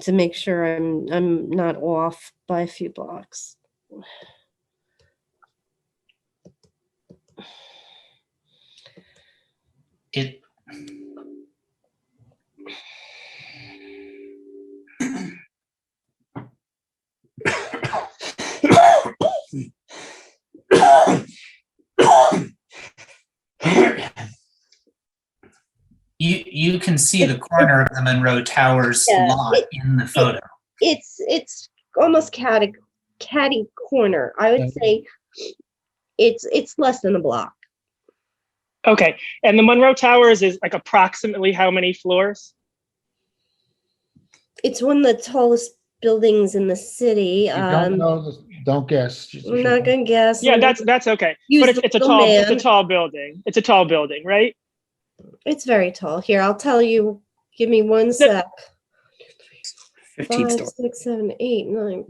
to make sure I'm, I'm not off by a few blocks. It. You, you can see the corner of the Monroe Towers Yeah. lot in the photo. It's, it's almost catty, catty corner. I would say it's, it's less than a block. Okay, and the Monroe Towers is like approximately how many floors? It's one of the tallest buildings in the city. You don't Um, know, this- don't guess. Just- I'm not gonna guess. Yeah, that's that's okay. Use But it's, the it's a little tall it's a man. tall building. It's a tall building, right? It's very tall. Here, I'll tell you. Give me one sec. Five, 15 stories. six, seven, eight, nine.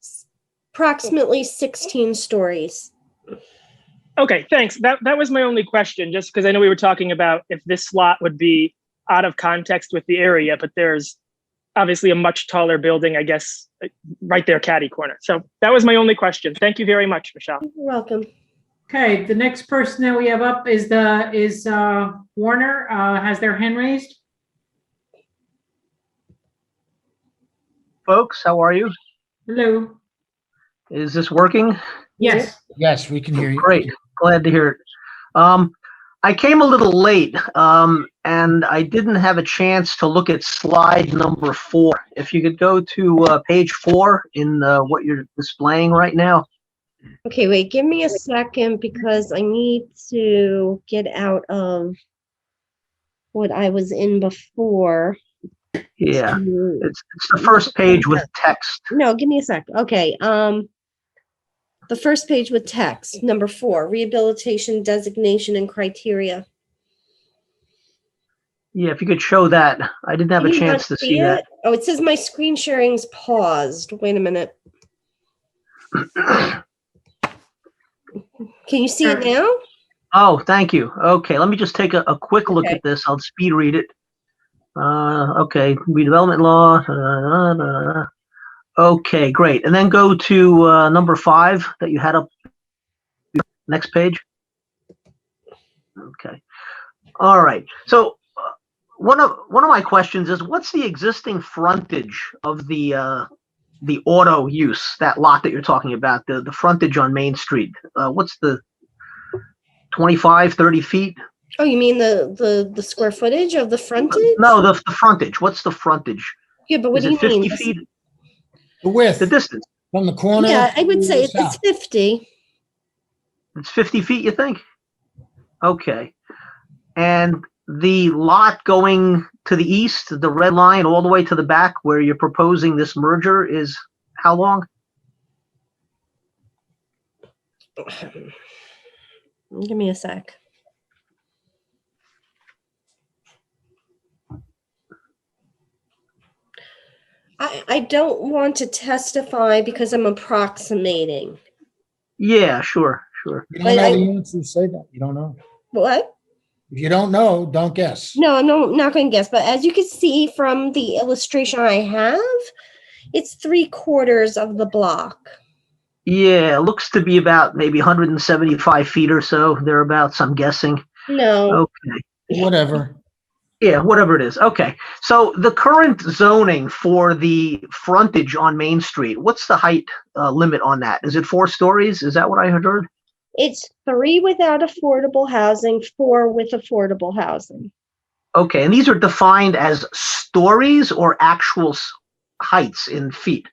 S- Approximately 16 stories. Okay, thanks. That that was my only question, just because I know we were talking about if this slot would be out of context with the area, but there's obviously a much taller building, I guess, uh, right there, catty corner. So that was my only question. Thank you very much, Michelle. You're welcome. Okay, the next person that we have up is the, is uh, Warner, uh, has their hand raised. folks. How are you? Hello? Is this working? Yes. Yes, we can hear you. Great. Glad to hear it. Um, I came a little late, um, and I didn't have a chance to look at slide number four. If you could go to uh, page four in uh, what you're displaying right now. Okay, wait, give me a second because I need to get out of what I was in before. Yeah, to- it's, it's the first page with text. No, give me a sec. Okay, um, the first page with text, number four, rehabilitation designation and criteria. Yeah, if you could show that. I didn't have a Can you not chance to see that. it? Oh, it says my screen sharing's paused. Wait a minute. Can you see it now? Oh, thank you. Okay, let me just take a, a quick look Okay. at this. I'll speed read it. Uh, okay, redevelopment law. da, da, da, da. Okay, great. And then go to uh, number five that you had up. Next page. Okay. All right. So uh, one of one of my questions is, what's the existing frontage of the uh, the auto use that lot that you're talking about? The the frontage on Main Street. Uh, what's the 25, 30 feet? Oh, you mean the the the square footage of the frontage? No, the, the frontage. What's the frontage? Yeah, but what Is do you it 50 mean? feet? The The width distance? from the corner. Yeah, I would to say the it's it's south. fifty. It's 50 feet, you think? Okay. And the lot going to the east, the red line all the way to the back where you're proposing this merger is how long? Give me a sec. I I don't want to testify because I'm approximating. Yeah, sure, sure. You I- don't know I- the answer, say that. You don't know. What? If you don't know, don't guess. No, I'm no- not going to guess, but as you can see from the illustration I have, it's three quarters of the block. Yeah, it looks to be about maybe 175 feet or so, thereabouts, I'm guessing. No, Okay. Whatever. Yeah, whatever it is. Okay. So the current zoning for the frontage on Main Street, what's the height uh, limit on that? Is it four stories? Is that what I had heard? it's three without affordable housing, four with affordable housing. Okay. And these are defined as stories or actual s- heights in feet?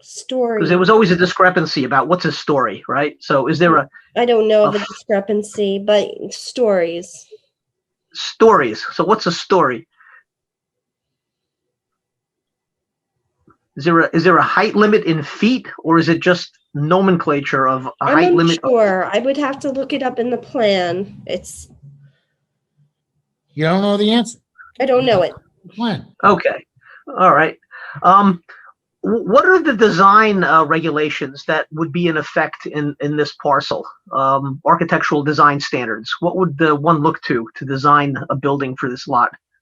Story. Because there was always a discrepancy about what's a story, right? So is there a I don't know of a Ugh. discrepancy, but stories. stories? So what's a story? Is there a is there a height limit in feet or is it just nomenclature of a height I'm limit? unsure. I would have to look it up in the plan. It's, You don't know the answer. I don't know it. Plan. Okay, all right. Um, wh- what are the design uh, regulations that would be in effect in, in this parcel? Um, architectural design standards. What would the one look to to design a building for this lot?